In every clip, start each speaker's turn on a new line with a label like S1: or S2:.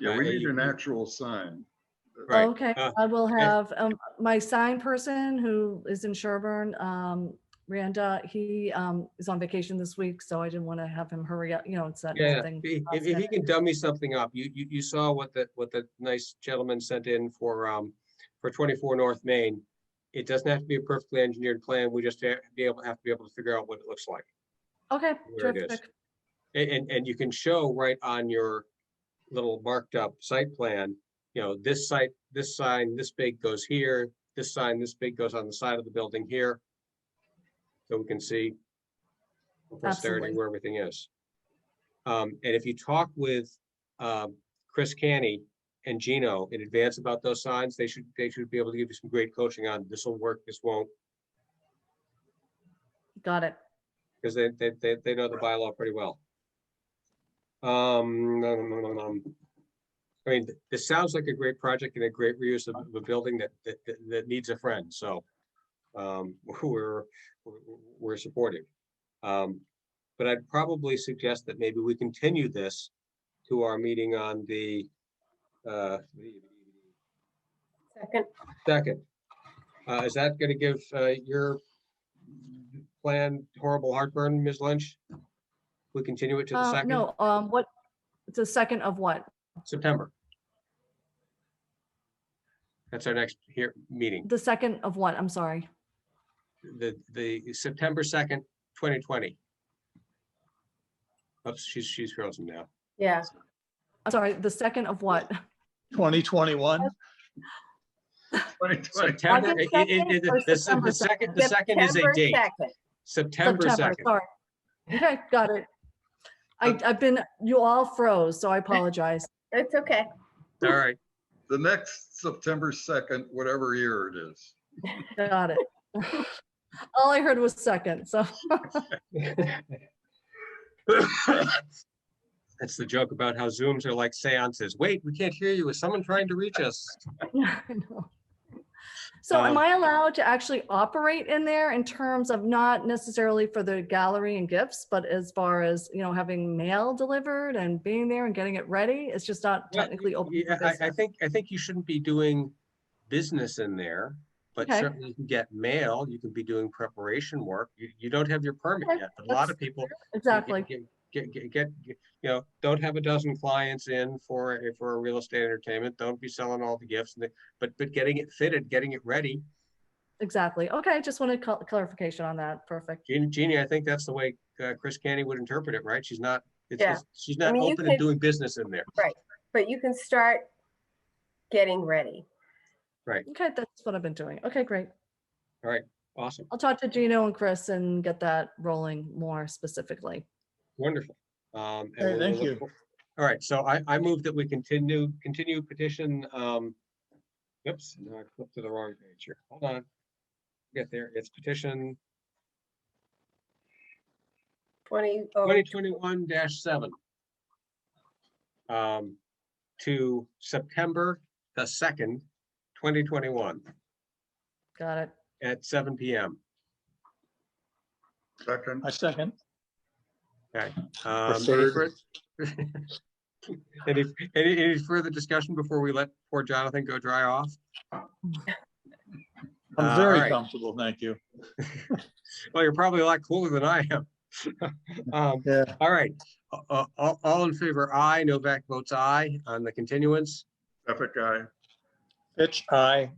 S1: Yeah,
S2: Uh,
S1: we
S2: uh,
S1: need
S2: you-
S1: an
S2: you-
S1: actual sign.
S2: Right.
S3: Okay,
S2: Uh,
S3: I will have, um, my sign person who is in Sherburne, um, Randa, he, um, is on vacation this week, so I didn't want to have him hurry up, you know, it's that
S2: Yeah,
S3: thing.
S2: if, if- if
S3: constant.
S2: he can dummy something up, you, you, you saw what the, what the nice gentleman sent in for, um, for twenty-four North Main. It doesn't have to be a perfectly engineered plan, we just have, be able, have to be able to figure out what it looks like.
S3: Okay,
S2: where it is.
S3: terrific.
S2: A- And, and, you can show right on your little marked up site plan, you know, this site, this sign, this big goes here, this sign, this big goes on the side of the building here. So we can see for posterity
S3: Absolutely.
S2: where everything is. Um, and if you talk with, um, Chris Canny and Gino in advance about those signs, they should, they should be able to give you some great coaching on this will work, this won't,
S3: Got it.
S2: because they, they, they, they know the bylaw pretty well. Um, no, no, no, no, no. I mean, th- this sounds like a great project and a great reuse of a building that, that, that- that needs a friend, so. Um, we're, we're- we're supportive. Um, but I'd probably suggest that maybe we continue this to our meeting on the, uh,
S4: Second,
S2: second. Uh, is that gonna give, uh, your plan horrible heartburn, Ms. Lynch? We continue it to the
S3: Uh,
S2: second,
S3: no, um, what, the second of what?
S2: September. That's our next here, meeting,
S3: The second of what? I'm sorry.
S2: the, the September second, twenty twenty. Oops, she's, she's frozen now.
S4: yeah,
S3: I'm sorry, the second of what?
S5: 2021.
S1: 2020.
S2: September,
S4: August
S2: it- it- it-
S4: 2nd
S2: the-
S3: or
S2: the- the
S3: September
S2: second, the second is a
S4: September
S2: date,
S4: 2nd.
S2: September second.
S3: Sorry. Okay, got it. I, I've been, you all froze, so I apologize.
S4: It's okay.
S2: All right,
S1: The next September 2nd, whatever year it is.
S3: Got it. All I heard was second, so.
S2: that's the joke about how Zooms are like seances. Wait, we can't hear you. Is someone trying to reach us?
S3: Yeah, I know. So am
S2: Um,
S3: I allowed to actually operate in there in terms of not necessarily for the gallery and gifts, but as far as, you know, having mail delivered and being there and getting it ready? It's just not
S2: Well,
S3: technically open. for
S2: Yeah, I, I
S3: business.
S2: think, I think you shouldn't be doing business in there, but
S3: Okay.
S2: certainly you can get mail, you can be doing preparation work. You, you don't have your permit
S3: Okay,
S2: yet. but A lot
S3: that's
S2: of people. you get-
S3: Exactly.
S2: get- Get, get, get, get- you know, don't have a dozen clients in for, a- for a real estate entertainment. Don't be selling all the gifts, and the- but, but getting it fitted, getting it ready.
S3: Exactly. Okay, just wanted cl- clarification on that. Perfect.
S2: Jean- Jeannie, I think that's the way uh, Chris Canny would interpret it, right? She's not, it's,
S4: Yeah.
S2: it's- she's not
S4: mean, you
S2: open and
S4: could-
S2: doing business in there.
S4: But you can start getting ready.
S3: Okay, that's what I've been doing. Okay, great.
S2: Awesome,
S3: I'll talk to Gino and Chris and get that rolling more specifically.
S2: wonderful. Um, and
S5: Hey,
S2: we'll- we'll
S5: thank
S2: look
S5: you.
S2: for- All right, so I, I move that we continue, continue petition, um, oops, no, I flipped to the wrong page here. Hold on. Get there, it's petition
S4: 20, oh,
S2: twenty twenty-one seven. Um, to September the second, twenty twenty-one
S3: Got it.
S2: at seven PM.
S1: Second,
S5: I second.
S2: Um, any
S5: third.
S2: fur- Any, any, any further discussion before we let poor Jonathan go dry off? Uh,
S5: I'm
S2: all right.
S5: very comfortable, thank you.
S2: Well, you're probably a lot cooler than I am. Um,
S5: Yeah.
S2: all right, Uh, uh, all, all in favor, aye, Novak votes aye on the continuance.
S1: epic guy.
S5: Fitch, aye.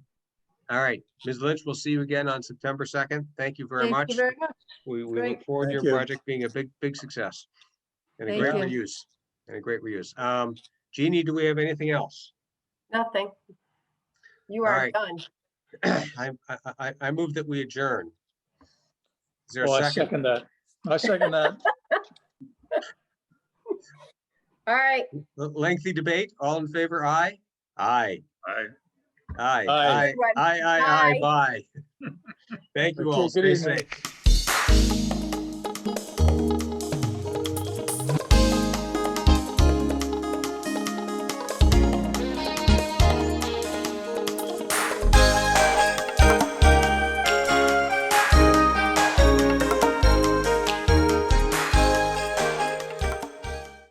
S2: All right, Ms. Lynch, we'll see you again on September second. Thank you very
S3: Thank
S2: much.
S3: you very much.
S2: We, we look
S3: Great.
S2: forward to
S5: Thank
S2: your
S5: you.
S2: project being a big, big success. And a
S3: Thank
S2: great
S3: you.
S2: reuse, and a great reuse. Um, Jeannie, do we have anything else?
S4: nothing. You
S2: All
S4: are
S2: right.
S4: done.
S2: I, I, I, I move that we adjourn. Is there
S5: Well, Oh, I
S2: a second?
S5: second that. I second that.
S4: All right.
S2: L- Lengthy debate, all in favor, aye? Aye,
S1: I
S2: aye,
S5: Aye.
S2: aye, aye, aye, aye, bye. Thank you all,
S5: Okay,
S2: stay
S5: good
S2: safe.
S5: evening.